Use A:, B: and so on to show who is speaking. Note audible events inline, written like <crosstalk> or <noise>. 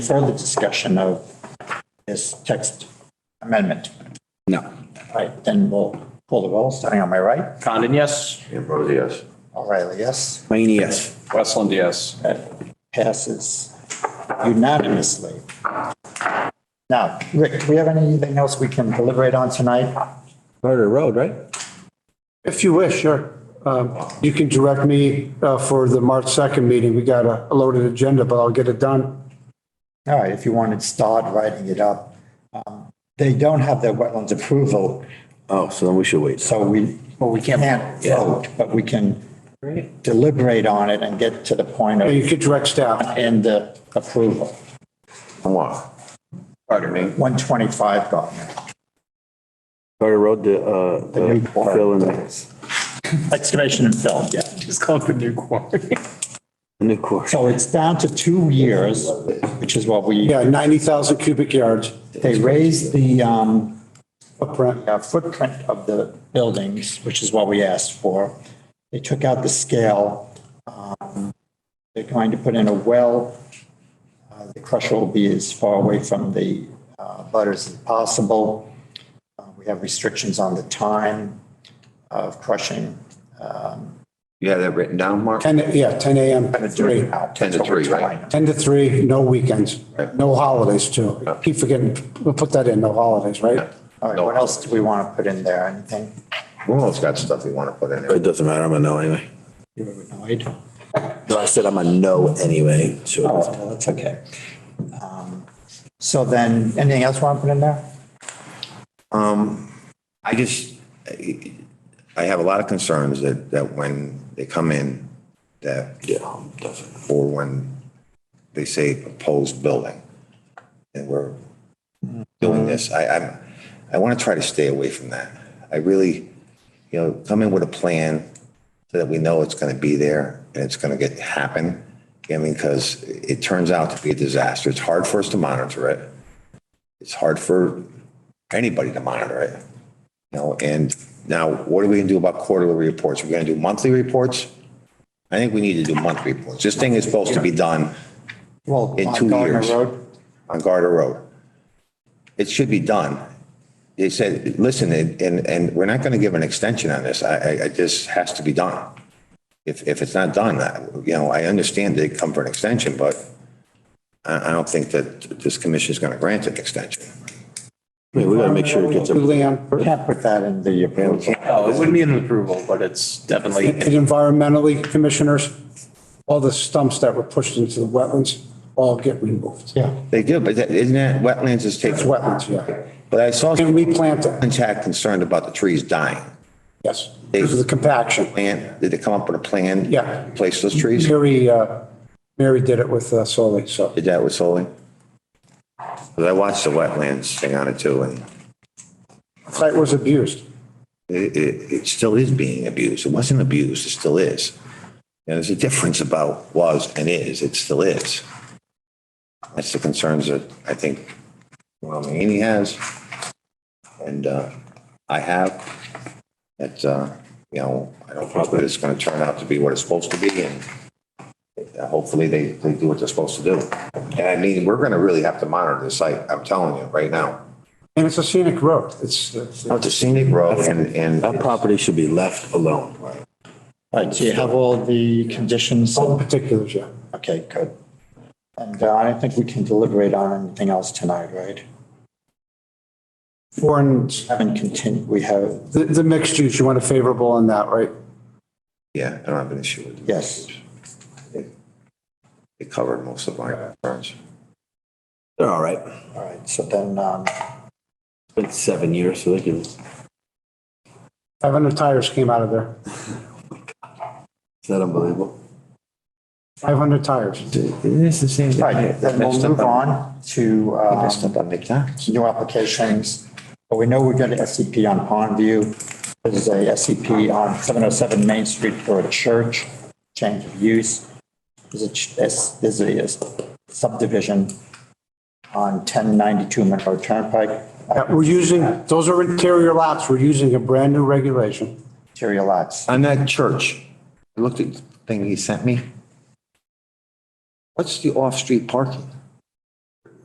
A: further discussion of this text amendment?
B: No.
A: All right, then we'll pull the roll, starting on my right.
B: Condon, yes.
C: Ambrosi, yes.
A: O'Reilly, yes.
B: Mayne, yes. Westland, yes.
A: That passes unanimously. Now, Rick, do we have anything else we can deliberate on tonight?
D: Murder Road, right?
E: If you wish, sure. Um, You can direct me uh, for the March 2nd meeting. We got a loaded agenda, but I'll get it done.
A: All right, if you want to start writing it up. Um, They don't have their wetlands approval,
C: Oh, so then we should wait.
A: so we, well, we can't vote, but we can deliberate on it and get to the point
E: And you
A: of,
E: can direct staff.
A: and the approval.
C: Come on.
B: Pardon me.
A: 125 Gardner.
C: Carter Road, the, uh,
A: The new
C: the
A: quarry.
C: fill in, the
A: Excavation and fill, yeah.
C: new course.
A: So it's down to two years, which is what we,
E: Yeah, 90,000 cubic yards
A: they raised the um,
E: footprint.
A: uh, footprint of the buildings, which is what we asked for. They took out the scale. Um, They're going to put in a well. Uh, The crusher will be as far away from the uh, butters as possible. Uh, We have restrictions on the time of crushing.
F: You have that written down, Mark?
E: 10, yeah, 10 AM to 3.
F: 10 to 3, right?
E: 10 to 3, no weekends,
F: Right.
E: no holidays too. Keep forgetting, we'll put that in, no holidays, right?
A: All right, what else do we want to put in there? Anything?
F: Romeo's got stuff we want to put in there.
C: It doesn't matter, I'm a no anyway.
A: You were annoyed?
C: No, I said I'm a no anyway,
A: Oh,
C: so.
A: well, that's okay. Um, So then, anything else you want to put in there?
F: I just, I I have a lot of concerns that, that when they come in, that,
C: Yeah, definitely.
F: or when they say proposed building, and we're doing this, I, I'm, I want to try to stay away from that. I really, you know, come in with a plan so that we know it's going to be there and it's going to get, happen. I mean, because it turns out to be a disaster. It's hard for us to monitor it. It's hard for anybody to monitor it. You know, and now what are we going to do about quarterly reports? We're going to do monthly reports? I think we need to do monthly reports. This thing is supposed to be done
A: Well,
F: In
A: on
F: two
A: Gardner
F: years.
A: Road,
F: on Garter Road. It should be done. They said, listen, and, and- and we're not going to give an extension on this. I, I, I just has to be done. If, if it's not done, I- you know, I understand they come for an extension, but I, I don't think that this commission is going to grant an extension.
C: We gotta make sure it gets, a-
A: we
E: Luann,
A: can't put that in the approval.
B: No, Oh, it wouldn't be an approval, but it's
E: and <laughs>
B: definitely,
E: environmentally, commissioners, all the stumps that were pushed into the wetlands all get removed.
A: Yeah.
F: They do, but that- isn't that wetlands is
E: It's
F: taken?
E: wetlands, yeah.
F: But I saw
E: And
F: some
E: replant them,
F: contact concerned about the trees dying.
E: yes, because of the compaction.
F: Plan, did they come up with a plan?
E: Yeah.
F: to Place those trees?
E: Mary, uh, Mary did it with uh, Solly, so.
F: Did that with Solly? 'Cause I watched the wetlands thing on it too, and
E: Site was abused.
F: it, it, it still is being abused. It wasn't abused, it still is. And there's a difference about was and is, it still is. That's the concerns that I think Ron Mahaney has, and, uh, I have, that, uh, you know, I don't know that it's gonna turn out to be what it's supposed to be, and uh, hopefully they, they do what they're supposed to do. And I mean, we're gonna really have to monitor the site, I'm telling you, right now.
E: And it's a scenic road. It's, it's-
F: It's a scenic road, and, and.
C: that property should be left alone.
A: All right, do you have all the conditions?
E: all the particulars, yeah.
A: Okay, good. And uh, I don't think we can deliberate on anything else tonight, right?
E: Foreign,
A: Haven't continued, we have,
E: the, the mixed use, you want a favorable on that, right?
F: Yeah, I don't have an issue with it.
A: yes.
F: It covered most of my concerns.
C: They're all right.
A: All right, so then, um,
C: It's been seven years, so they can,
E: 500 tires came out of there.
C: it's not unbelievable.
E: 500 tires.
C: It's the same.
A: all right, then we'll move on to um, new applications. But we know we've got an SCP E on Pondview. There's a SCP on 707 Main Street for a church, change of use. There's a, ch- there's there's a subdivision on 1092 Monroe Turnpike,
E: Yeah, We're using, those are interior lots. We're using a brand new regulation.
A: interior lots.
F: On that church, I looked at the thing he sent me. What's the off-street parking?